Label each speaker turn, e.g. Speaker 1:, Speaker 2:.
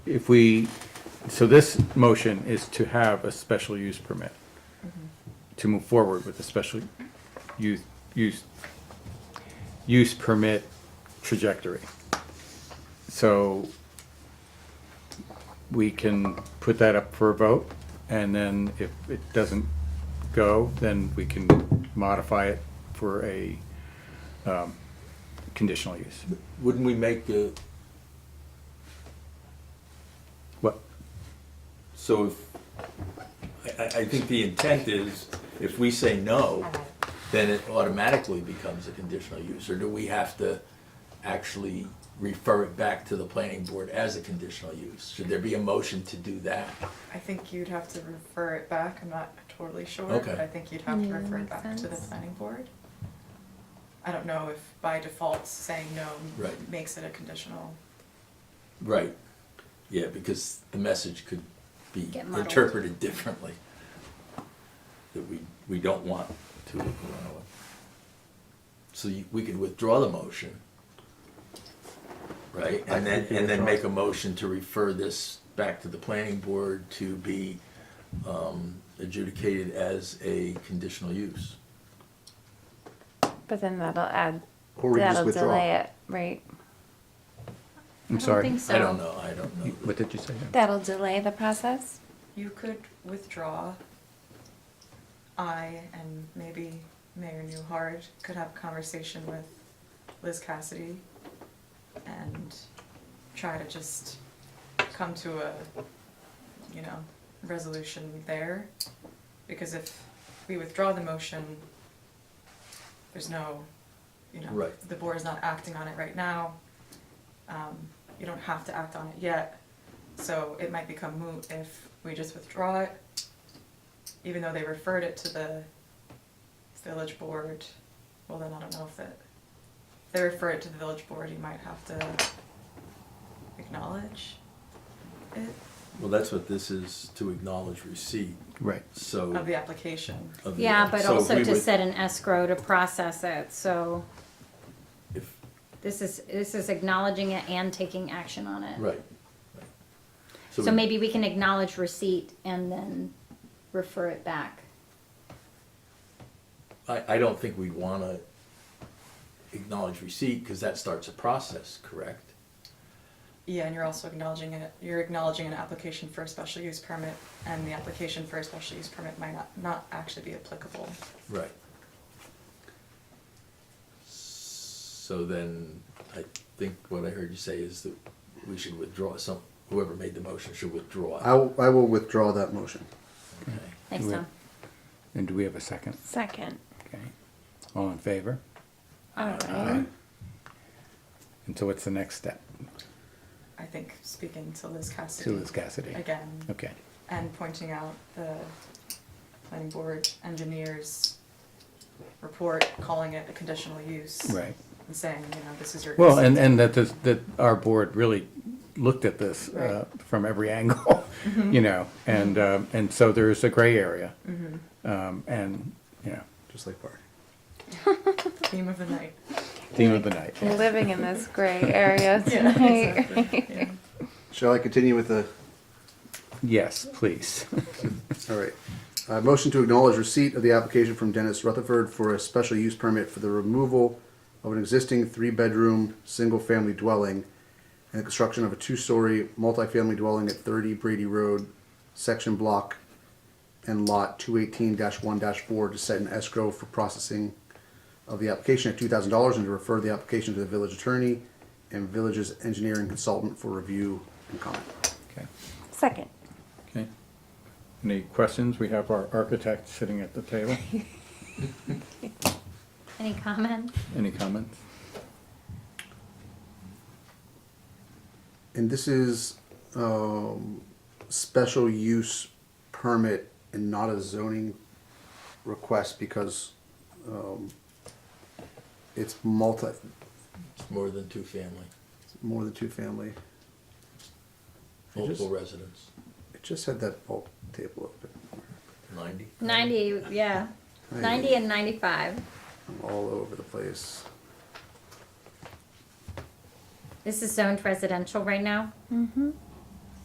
Speaker 1: if we, so this motion is to have a special use permit, to move forward with a special use, use, use permit trajectory. So we can put that up for a vote, and then if it doesn't go, then we can modify it for a um, conditional use.
Speaker 2: Wouldn't we make the,
Speaker 1: What,
Speaker 2: so if, I, I, I think the intent is, if we say no, then it automatically becomes a conditional use, or do we have to actually refer it back to the planning board as a conditional use? Should there be a motion to do that?
Speaker 3: I think you'd have to refer it back, I'm not totally sure,
Speaker 2: Okay.
Speaker 3: but I think you'd have to
Speaker 4: Yeah,
Speaker 3: refer it
Speaker 4: makes
Speaker 3: back to the
Speaker 4: sense.
Speaker 3: planning board. I don't know if by default saying no
Speaker 2: Right.
Speaker 3: makes it a conditional,
Speaker 2: Right, yeah, because the message could be
Speaker 4: Get muddled.
Speaker 2: interpreted differently. That we, we don't want to allow it. So you- we could withdraw the motion. Right,
Speaker 1: I
Speaker 2: and then,
Speaker 1: think we
Speaker 2: and then
Speaker 1: withdraw.
Speaker 2: make a motion to refer this back to the planning board to be um, adjudicated as a conditional use.
Speaker 4: But then that'll add,
Speaker 5: Or we just
Speaker 4: that'll
Speaker 5: withdraw.
Speaker 4: delay it, right?
Speaker 1: I'm sorry.
Speaker 2: I don't know, I don't know.
Speaker 1: What did you say?
Speaker 4: That'll delay the process?
Speaker 3: you could withdraw. I and maybe Mayor Newhart could have a conversation with Liz Cassidy and try to just come to a, you know, resolution there. Because if we withdraw the motion, there's no, you know,
Speaker 2: Right.
Speaker 3: the board is not acting on it right now. Um, You don't have to act on it yet, so it might become moot if we just withdraw it. Even though they referred it to the village board, well then I don't know if it, if they refer it to the village board, you might have to acknowledge it
Speaker 2: Well, that's what this is, to acknowledge receipt,
Speaker 1: Right.
Speaker 2: so.
Speaker 3: of the application.
Speaker 2: of the-
Speaker 4: Yeah, but
Speaker 2: so if
Speaker 4: also
Speaker 2: we
Speaker 4: to
Speaker 2: would-
Speaker 4: set an escrow to process it, so
Speaker 2: if-
Speaker 4: this is, this is acknowledging it and taking action on it.
Speaker 2: Right.
Speaker 4: So
Speaker 2: we-
Speaker 4: maybe we can acknowledge receipt and then refer it back.
Speaker 2: I, I don't think we'd wanna acknowledge receipt, cause that starts a process, correct?
Speaker 3: Yeah, and you're also acknowledging it, you're acknowledging an application for a special use permit, and the application for a special use permit might not, not actually be applicable.
Speaker 2: Right. So then, I think what I heard you say is that we should withdraw some, whoever made the motion should
Speaker 5: I,
Speaker 2: withdraw.
Speaker 5: will- I will withdraw that motion.
Speaker 2: Okay.
Speaker 4: Thanks,
Speaker 1: Wait.
Speaker 4: Tom.
Speaker 1: And do we have a second?
Speaker 4: Second.
Speaker 1: Okay. All in favor?
Speaker 4: Alright.
Speaker 1: And so what's the next step?
Speaker 3: I think speaking to Liz
Speaker 1: To
Speaker 3: Cassidy
Speaker 1: Liz Cassidy?
Speaker 3: again,
Speaker 1: Okay.
Speaker 3: and pointing out the planning board engineer's report, calling it a conditional use.
Speaker 1: Right.
Speaker 3: And saying, you know, this is your.
Speaker 1: Well, and, and that this, that our board really looked at this uh,
Speaker 3: Right.
Speaker 1: from every angle, you know, and, um, and so there is a gray area. Um, And, you know,
Speaker 5: Just like Bart.
Speaker 3: Theme of the night.
Speaker 1: theme of the night.
Speaker 6: living in this gray area
Speaker 3: Yeah,
Speaker 6: tonight.
Speaker 3: exactly. Yeah.
Speaker 5: Shall I continue with the?
Speaker 1: Yes, please.
Speaker 5: All right. Uh, motion to acknowledge receipt of the application from Dennis Rutherford for a special use permit for the removal of an existing three-bedroom, single-family dwelling and the construction of a two-story multifamily dwelling at 30 Brady Road, section block and lot 218-1-4 to set an escrow for processing of the application at $2,000 and to refer the application to the village attorney and village's engineering consultant for review and comment.
Speaker 1: Okay.
Speaker 6: Second.
Speaker 1: Okay. Any questions? We have our architect sitting at the table.
Speaker 4: Any comments?
Speaker 1: Any comments?
Speaker 5: And this is um, special use permit and not a zoning request because um, it's multi,
Speaker 2: It's more than two family,
Speaker 5: more than two family.
Speaker 2: multiple residents,
Speaker 5: It just had that bulk table open.
Speaker 2: ninety?
Speaker 4: Ninety, yeah, ninety and ninety-five.
Speaker 5: I'm all over the place.
Speaker 4: This is zoned residential right now?
Speaker 6: Mm-hmm.